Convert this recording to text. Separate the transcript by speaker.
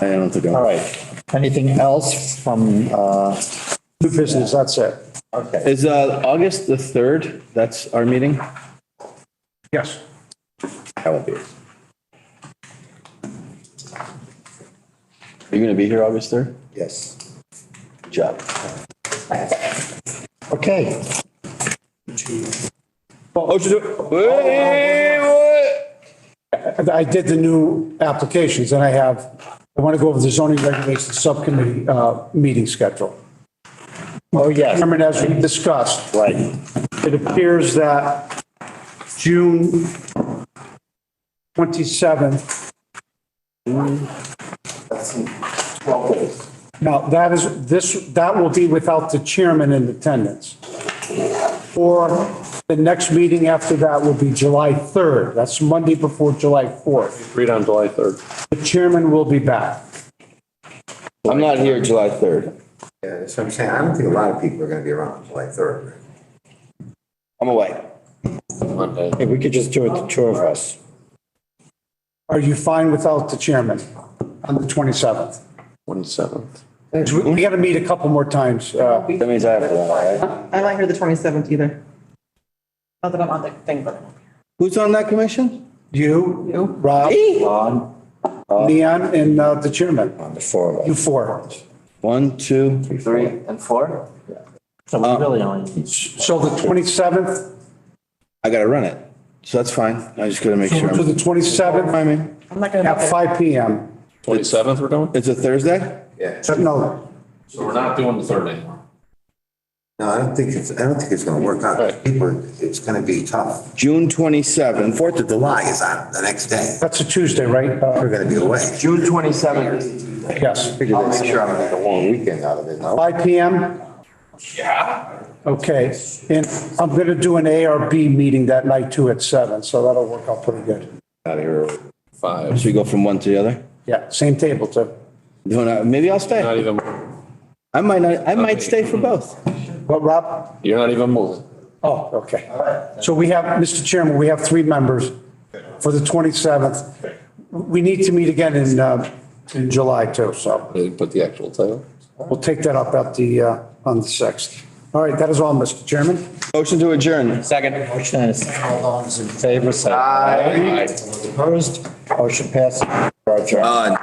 Speaker 1: I don't think.
Speaker 2: All right. Anything else from, uh,
Speaker 3: New business, that's it.
Speaker 2: okay.
Speaker 1: Is, uh, August the third, that's our meeting?
Speaker 3: Yes.
Speaker 1: I won't be. Are you gonna be here August third?
Speaker 2: Yes.
Speaker 1: Good job.
Speaker 2: Okay.
Speaker 1: Oh, should do, wait, what?
Speaker 3: And I did the new applications and I have, I want to go over the zoning regulations subcommittee, uh, meeting schedule.
Speaker 2: Oh, yes,
Speaker 3: Chairman, as we discussed,
Speaker 2: right.
Speaker 3: it appears that June 27th. Now, that is, this, that will be without the chairman in attendance. Or the next meeting after that will be July 3rd. That's Monday before July 4th.
Speaker 4: Read on July 3rd.
Speaker 3: The chairman will be back.
Speaker 1: I'm not here July third.
Speaker 5: Yeah, that's what I'm saying. I don't think a lot of people are gonna be around on July third.
Speaker 1: I'm away.
Speaker 2: Hey, we could just do it, the two of us.
Speaker 3: Are you fine without the chairman on the 27th?
Speaker 4: 27th.
Speaker 3: 'Cause We got to meet a couple more times. uh,
Speaker 1: That means I have to, all right?
Speaker 6: I'm not here the 27th either. Not that I'm on the thing, but.
Speaker 1: Who's on that commission?
Speaker 3: You,
Speaker 6: You?
Speaker 3: Rob,
Speaker 1: On.
Speaker 3: Leon, and uh, the chairman.
Speaker 2: On the four of
Speaker 3: You
Speaker 2: us.
Speaker 3: four.
Speaker 1: One, two, three.
Speaker 7: and four? So we really only need
Speaker 3: So the 27th
Speaker 1: I gotta run it. So that's fine. I just gotta make sure.
Speaker 3: to the
Speaker 1: I'm-
Speaker 3: 27th
Speaker 1: Remind me,
Speaker 6: I'm not gonna.
Speaker 3: at 5 PM.
Speaker 4: 27th we're doing?
Speaker 1: it's a Thursday?
Speaker 5: Yeah.
Speaker 3: No,
Speaker 4: So we're not doing the 3rd anymore.
Speaker 5: No, I don't think it's, I don't think it's gonna work out. People, it's gonna be tough.
Speaker 1: June twenty-seventh.
Speaker 5: Fourth of July is on the next day.
Speaker 3: that's a Tuesday, right?
Speaker 5: We're
Speaker 3: Uh,
Speaker 5: gonna be away.
Speaker 7: June twenty-seventh.
Speaker 3: Yes.
Speaker 5: I'll make sure I'm gonna make a long weekend out of it now.
Speaker 3: 5 PM? Yeah. Okay, and I'm going to do an ARB meeting that night too at 7, so that'll work out pretty good.
Speaker 1: Out of here.
Speaker 4: 5.
Speaker 1: Should we go from one to the other?
Speaker 3: Yeah, same table too.
Speaker 1: You wanna- Maybe I'll stay.
Speaker 4: Not even,
Speaker 1: I might not, I might stay for both.
Speaker 3: What, Rob?
Speaker 4: you're not even moving.
Speaker 3: Oh, okay. So we have, Mr. Chairman, we have three members for the 27th. We need to meet again in, uh, in July too, so
Speaker 4: They put the actual title.
Speaker 3: we'll take that up at the, uh, on the 6th. All right, that is all, Mr. Chairman.
Speaker 1: Motion to adjourn.
Speaker 2: Second. Motion and a second. All those in favor, say aye. Opposed? Motion passes. Roger.